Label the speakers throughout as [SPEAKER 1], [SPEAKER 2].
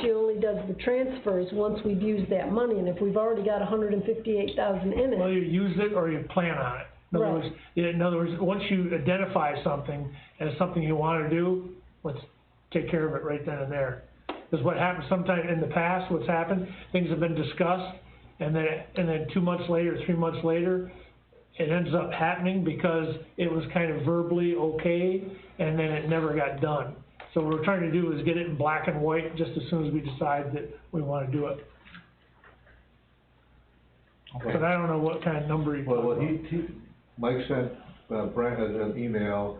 [SPEAKER 1] She only does the transfers once we've used that money, and if we've already got hundred and fifty-eight thousand in
[SPEAKER 2] Well,
[SPEAKER 1] it,
[SPEAKER 2] you use it or you plan on it. In other
[SPEAKER 1] Right.
[SPEAKER 2] words, in other words, once you identify something as something you wanna do, let's take care of it right then and there. Cause what happens sometime in the past, what's happened, things have been discussed, and then, and then two months later, three months later, it ends up happening because it was kind of verbally okay, and then it never got done. So what we're trying to do is get it in black and white just as soon as we decide that we wanna do it. But I don't know what kind of number you.
[SPEAKER 3] Well, well, he, he, Mike sent, uh, Brent an an email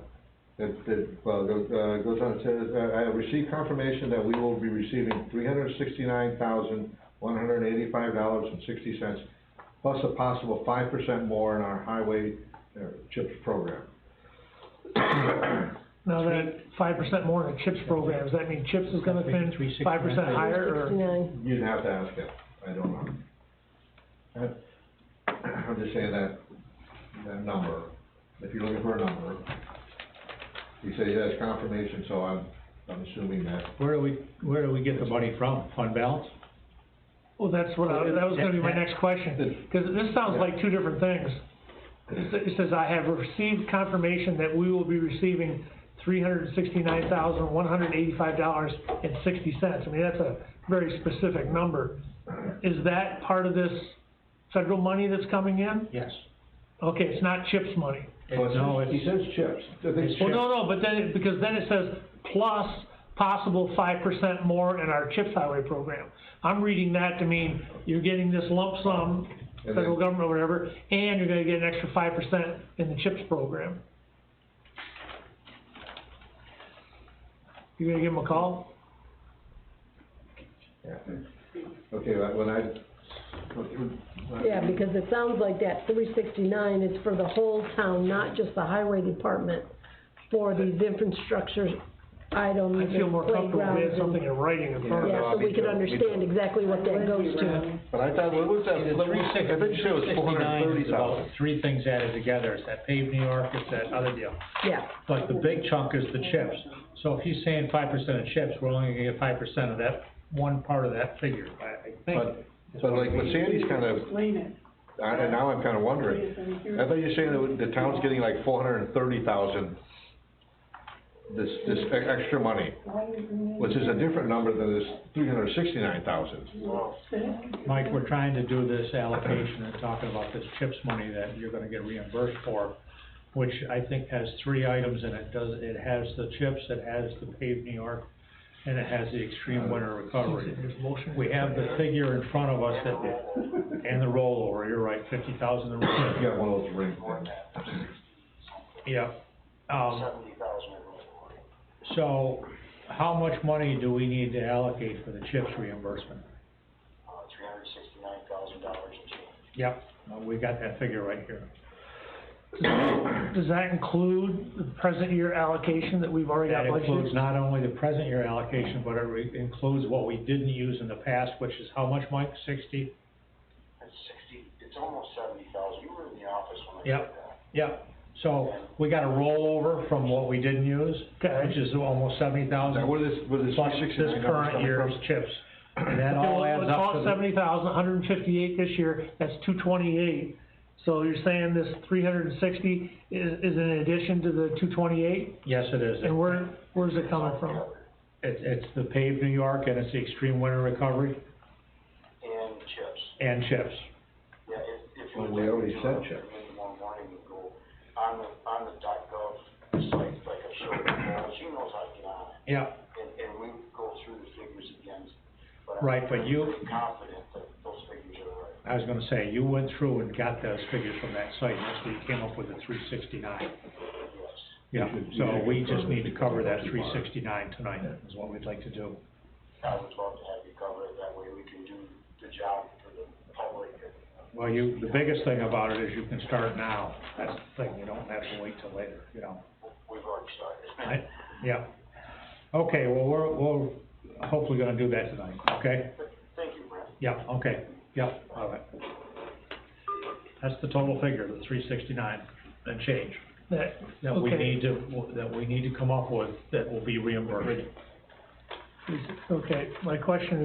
[SPEAKER 3] that, that, well, goes, uh, goes on, and says, uh, I have received confirmation that we will be receiving three hundred sixty-nine thousand, one hundred eighty-five dollars and sixty cents, plus a possible five percent more in our highway, uh, CHIPS program.
[SPEAKER 2] Now that five percent more in the CHIPS program, does that mean CHIPS is gonna
[SPEAKER 4] That'd
[SPEAKER 2] finish
[SPEAKER 4] be $3.69.
[SPEAKER 2] five percent higher or?
[SPEAKER 1] sixty-nine,
[SPEAKER 3] You'd have to ask him, I don't know. I- I'm just saying that, that number, if you're looking for a number, he said he has confirmation, so I'm, I'm assuming that.
[SPEAKER 4] Where do we, where do we get the money from? Fund balance?
[SPEAKER 2] Well, that's what I, that was gonna be my next question, cause this sounds like two different things. It sa- It says, I have received confirmation that we will be receiving three hundred and sixty-nine thousand, one hundred and eighty-five dollars and sixty cents. I mean, that's a very specific number. Is that part of this federal money that's coming in?
[SPEAKER 4] Yes.
[SPEAKER 2] Okay, it's not CHIPS money.
[SPEAKER 4] Oh, No,
[SPEAKER 3] He
[SPEAKER 4] it's,
[SPEAKER 3] says chips. I think
[SPEAKER 4] It's
[SPEAKER 2] Well,
[SPEAKER 3] chips.
[SPEAKER 2] no, no, but then, it- because then it says plus possible five percent more in our CHIPS highway program. I'm reading that to mean you're getting this lump sum,
[SPEAKER 3] And
[SPEAKER 2] federal
[SPEAKER 3] then-
[SPEAKER 2] government or whatever, and you're gonna get an extra five percent in the CHIPS program. You gonna give them a call?
[SPEAKER 3] Yeah. Okay, like, when I.
[SPEAKER 1] yeah, because it sounds like that three sixty-nine is for the whole town, not just the highway department, for these infrastructure items
[SPEAKER 2] I
[SPEAKER 1] and
[SPEAKER 2] feel more comfortable if we had
[SPEAKER 1] playgrounds
[SPEAKER 2] something
[SPEAKER 1] and,
[SPEAKER 2] in writing in front of
[SPEAKER 1] yeah,
[SPEAKER 2] us.
[SPEAKER 1] so we
[SPEAKER 3] Me
[SPEAKER 1] could
[SPEAKER 3] too, me
[SPEAKER 1] understand
[SPEAKER 3] too.
[SPEAKER 1] exactly what that goes to.
[SPEAKER 3] But I thought, what was that?
[SPEAKER 4] the
[SPEAKER 3] number?
[SPEAKER 4] three six,
[SPEAKER 3] I think she was four hundred and
[SPEAKER 4] sixty-nine
[SPEAKER 3] thirty
[SPEAKER 4] is about
[SPEAKER 3] thousand.
[SPEAKER 4] three things added together. It's that paved New York, it's that other deal.
[SPEAKER 1] Yeah,
[SPEAKER 4] But the big chunk is the chips. So if he's saying five percent of chips, we're only gonna get five percent of that, one part of that figure, I, I think.
[SPEAKER 3] But, but like what Sandy's kind of,
[SPEAKER 5] Explain it.
[SPEAKER 3] I- and now I'm kind of wondering, I thought you were saying that the town's getting like four hundred and thirty thousand, this, this e- extra money, which is a different number than this three hundred and sixty-nine thousand.
[SPEAKER 4] Mike, we're trying to do this allocation and talking about this CHIPS money that you're gonna get reimbursed for, which I think has three items in it, does, it has the CHIPS, it has the paved New York, and it has the extreme winter recovery.
[SPEAKER 2] There's motion.
[SPEAKER 4] We have the figure in front of us that, and the rollover, you're right, fifty thousand in rollover.
[SPEAKER 3] You got one of those ring things.
[SPEAKER 4] Yep. Seventy thousand. So, how much money do we need to allocate for the CHIPS reimbursement?
[SPEAKER 6] uh, three hundred sixty-nine thousand dollars and change.
[SPEAKER 4] Yep. uh, We got that figure right here.
[SPEAKER 2] Does that include the present year allocation that we've already got
[SPEAKER 4] That
[SPEAKER 2] budgeted?
[SPEAKER 4] includes not only the present year allocation, but it re- includes what we didn't use in the past, which is how much, Mike? Sixty?
[SPEAKER 6] That's sixty, it's almost seventy thousand, you were in the office when I
[SPEAKER 4] Yep.
[SPEAKER 6] did that.
[SPEAKER 4] Yep. So, we got a rollover from what we didn't use,
[SPEAKER 2] Okay.
[SPEAKER 4] which is almost seventy
[SPEAKER 3] Now,
[SPEAKER 4] thousand,
[SPEAKER 3] where this, where this
[SPEAKER 4] plus
[SPEAKER 3] three
[SPEAKER 4] this
[SPEAKER 3] sixty-nine number's
[SPEAKER 4] current
[SPEAKER 3] coming
[SPEAKER 4] year's
[SPEAKER 3] from?
[SPEAKER 4] CHIPS. And that
[SPEAKER 2] Okay, well,
[SPEAKER 4] all adds
[SPEAKER 2] it's
[SPEAKER 4] up to
[SPEAKER 2] all
[SPEAKER 4] the-
[SPEAKER 2] seventy thousand, hundred and fifty-eight this year, that's two twenty-eight. So you're saying this three hundred and sixty is, is in addition to the two twenty-eight?
[SPEAKER 4] Yes, it is.
[SPEAKER 2] And where, where's it coming from?
[SPEAKER 4] It's, it's the paved New York and it's the extreme winter recovery
[SPEAKER 6] And chips,
[SPEAKER 4] and chips.
[SPEAKER 6] yeah, if, if you.
[SPEAKER 3] Well,
[SPEAKER 6] would
[SPEAKER 3] we
[SPEAKER 6] like
[SPEAKER 3] already
[SPEAKER 6] to do
[SPEAKER 3] said
[SPEAKER 6] it,
[SPEAKER 3] chips.
[SPEAKER 6] maybe One morning we go on the, on the dot gov site, like I showed her, she knows how to get on it,
[SPEAKER 4] Yeah.
[SPEAKER 6] and, and we go through the figures again. but I'm
[SPEAKER 4] Right, but you-
[SPEAKER 6] pretty Confident that those figures are right.
[SPEAKER 4] I was gonna say, you went through and got those figures from that site, and that's where you came up with the three sixty-nine. Yeah, so we just need to cover that three sixty-nine tonight, is what we'd like to do.
[SPEAKER 6] I would love to have you cover it, that way we can do the job for the public and
[SPEAKER 4] Well, you, the biggest thing about it is you can start now. That's the thing, you don't have to wait till later, you know?
[SPEAKER 6] we've already
[SPEAKER 4] I,
[SPEAKER 6] started.
[SPEAKER 4] yeah. Okay, well, we're, we're hopefully gonna do that tonight, okay?
[SPEAKER 6] Thank you, Brent.
[SPEAKER 4] Yeah, okay, yeah, all right. That's the total figure, the three sixty-nine and change
[SPEAKER 2] That,
[SPEAKER 4] that we
[SPEAKER 2] Okay.
[SPEAKER 4] need to, that we need to come up with that will be reimbursed.
[SPEAKER 2] Okay, my question is.